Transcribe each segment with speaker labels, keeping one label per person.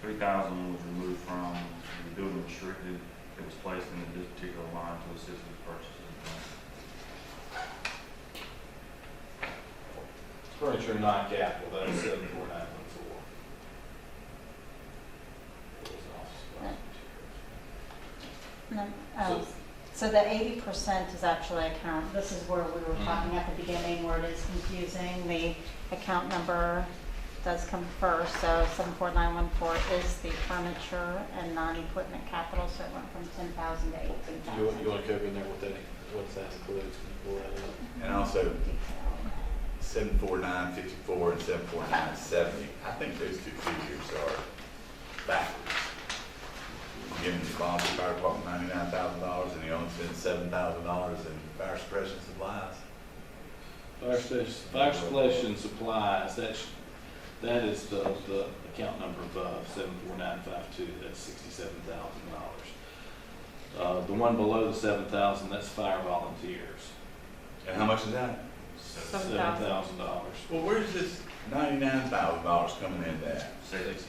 Speaker 1: three thousand was removed from the building restricted that was placed in this particular line to assist with purchases.
Speaker 2: Furniture non-capital, that is seven four nine one four.
Speaker 3: No, um, So the eighty percent is actually account, this is where we
Speaker 2: Mm-hmm.
Speaker 3: were talking at the beginning where it is confusing. The account number does come first, so seven four nine one four is the furniture and non-equipment capital, so it went from ten thousand to eighteen
Speaker 2: You, want- you
Speaker 3: thousand.
Speaker 2: wanna cover in there what that, what that includes, can you pull that up?
Speaker 4: And also seven four nine fifty-four and seven four nine seventy. I think those two figures are backwards. Giving the Columbia Fire Department ninety-nine thousand dollars and he only spent seven thousand dollars in fire suppression supplies.
Speaker 2: Fire station, fire suppression supplies, that's, that is the, the account number above, seven four nine five two, that's sixty-seven thousand dollars. Uh, the one below the seven thousand, that's fire volunteers,
Speaker 4: And how much is that?
Speaker 2: seven thousand dollars.
Speaker 4: Well, where's this ninety-nine thousand dollars coming in at?
Speaker 1: Safety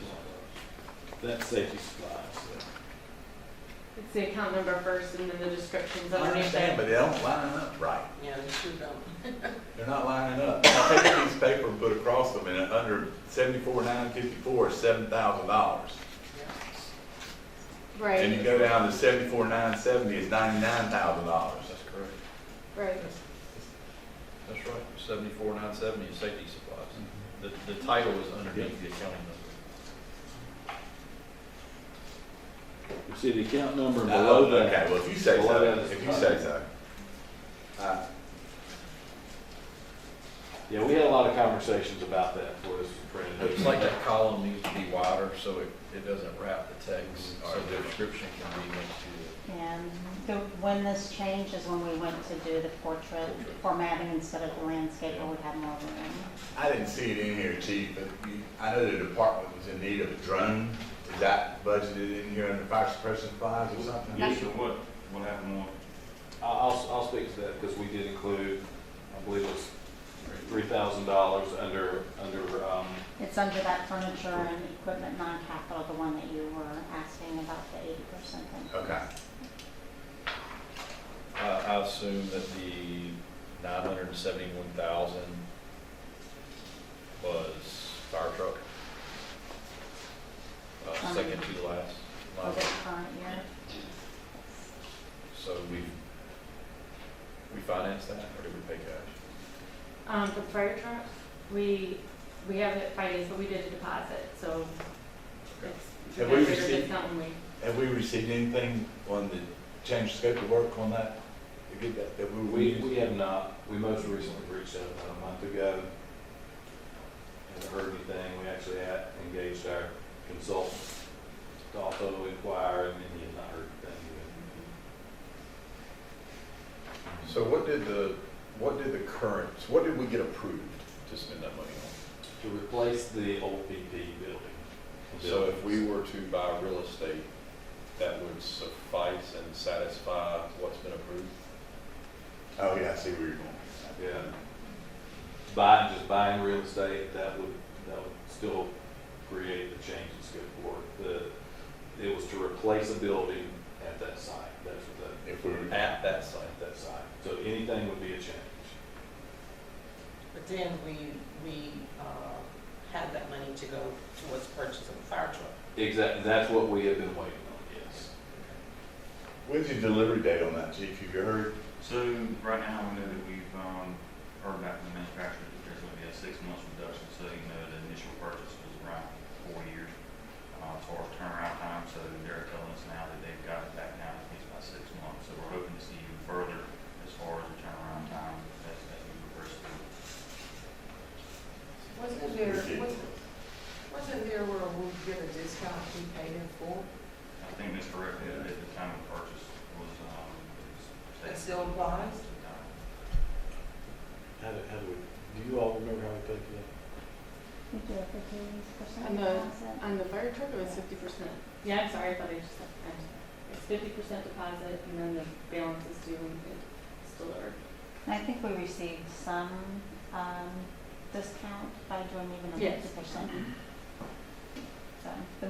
Speaker 2: That's safety supplies.
Speaker 5: It's the account number first and then the descriptions
Speaker 4: I
Speaker 5: underneath
Speaker 4: understand,
Speaker 5: it.
Speaker 4: but they don't line up right.
Speaker 6: Yeah, they sure don't.
Speaker 4: They're not lining up. I take a piece of paper and put across them and under seventy-four nine fifty-four is seven thousand dollars. And
Speaker 5: Right,
Speaker 4: you go down to seventy-four, nine seventy is ninety-nine thousand dollars.
Speaker 7: That's correct.
Speaker 5: right.
Speaker 7: That's right. Seventy-four, nine seventy is safety supplies. The, the title is underneath the accounting number.
Speaker 2: You see the account number
Speaker 4: Oh,
Speaker 2: below
Speaker 4: Okay,
Speaker 2: that,
Speaker 4: well, if you say
Speaker 2: Below
Speaker 4: so,
Speaker 2: that is
Speaker 4: if you
Speaker 2: fine.
Speaker 4: say so. Uh,
Speaker 2: yeah, we had a lot of conversations about that before this was printed.
Speaker 7: It's like that column needs to be wider so it, it doesn't wrap the text, so the description can be linked to
Speaker 3: And the, when this changed is when we went to do the portrait formatting instead of the landscape where we had more room.
Speaker 4: I didn't see it in here, chief, but you- I know the department was in need of a drone. Is that budgeted in here under fire suppression supplies or something?
Speaker 1: Yes, sir, what, what happened was,
Speaker 2: I- I'll, I'll speak to that because we did include, I believe it was three thousand dollars under, under, um,
Speaker 3: It's under that furniture and equipment non-capital, the one that you were asking about the eighty percent thing.
Speaker 4: Okay,
Speaker 7: the, uh, I assume that the nine hundred and seventy-one thousand was fire truck. Uh, second to last.
Speaker 3: For the current year?
Speaker 7: So we, we financed that or did we pay cash?
Speaker 5: Um, the fire truck, we, we have it financed, but we did a deposit, so it's.
Speaker 4: Have we
Speaker 5: considered
Speaker 4: received-
Speaker 5: discount when we-
Speaker 4: have we received anything on the change of scope of work on that? To get that, that we were
Speaker 2: we,
Speaker 4: using?
Speaker 2: we have not, we most recently reached out about a month ago. Haven't heard anything, we actually had engaged our consultants to also inquire and then you have not heard anything.
Speaker 7: So what did the, what did the current, what did we get approved to spend that money on?
Speaker 2: To replace the old PP building.
Speaker 7: So if we were to buy real estate, that would suffice and satisfy what's been approved?
Speaker 4: Oh, yeah, I see where you're going.
Speaker 2: Yeah. Buying, just buying real estate, that would, that would still create the change in scope of work. The, it was to replace a building at that site, that's what
Speaker 4: If we were
Speaker 2: that, at that site, that site. So anything would be a change.
Speaker 6: But then we, we, uh, have that money to go towards purchase of a fire truck.
Speaker 2: Exactly, that's what we have been waiting on, yes.
Speaker 4: When's your delivery date on that, chief? Have you heard?
Speaker 1: so right now, we know that we've, um, heard back from the manufacturer that there's gonna be a six month reduction, so you know, the initial purchase was around four years, uh, as far as turnaround time, so they're telling us now that they've got it back down at least by six months, so we're hoping to see even further as far as the turnaround time as, as we progress through.
Speaker 6: Wasn't
Speaker 4: there- wasn't-
Speaker 6: wasn't there where we get a discount we paid in full?
Speaker 1: I think Mr. Rick, at at the time of purchase, was, um. was-
Speaker 6: That still applies?
Speaker 2: How do, how do we, do you all remember how we paid for that?
Speaker 3: We do it for eighty percent
Speaker 5: And the-
Speaker 3: deposit.
Speaker 8: On the fire truck, it was fifty percent.
Speaker 5: Yeah, I'm sorry, but I just, I'm sorry. It's fifty percent deposit and then the balance is due when it's delivered.
Speaker 3: And I think we received some, um, discount by doing even a
Speaker 5: Yes.
Speaker 3: fifty percent. So, the